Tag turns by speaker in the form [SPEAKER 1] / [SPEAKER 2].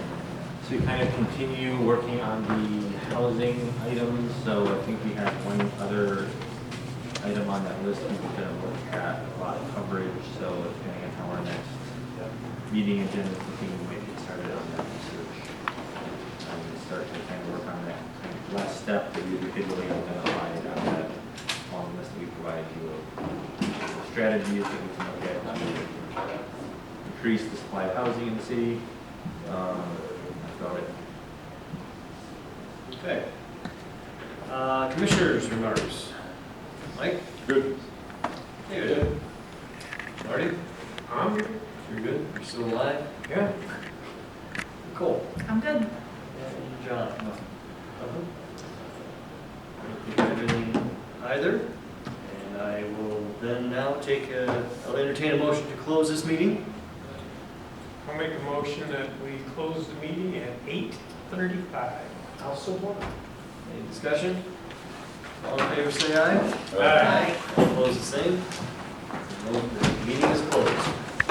[SPEAKER 1] to kind of continue working on the housing items, so I think we have one other item on that list, we were gonna look at lot coverage, so depending on how our next meeting agenda, is looking, we might get started on that research. And start to kind of work on that kind of last step, that we could really identify it on that long list that we provided you of strategies that we can look at to increase the supply of housing in the city. Um, That's about it.
[SPEAKER 2] Okay. Uh, Commissioners' remarks. Mike?
[SPEAKER 3] Good.
[SPEAKER 2] David? Marty? I'm good. You're good? You're still alive?
[SPEAKER 1] Yeah.
[SPEAKER 2] Cool. Uh-huh.
[SPEAKER 4] I'm good.
[SPEAKER 2] And John? I don't think I've been either. And I will then now take a, I'll entertain a motion to close this meeting.
[SPEAKER 5] I'll make a motion that we close the meeting at eight thirty-five.
[SPEAKER 2] I'll support. Any discussion? All in favor, say aye.
[SPEAKER 3] Aye.
[SPEAKER 2] All opposed, the same. Meeting is closed.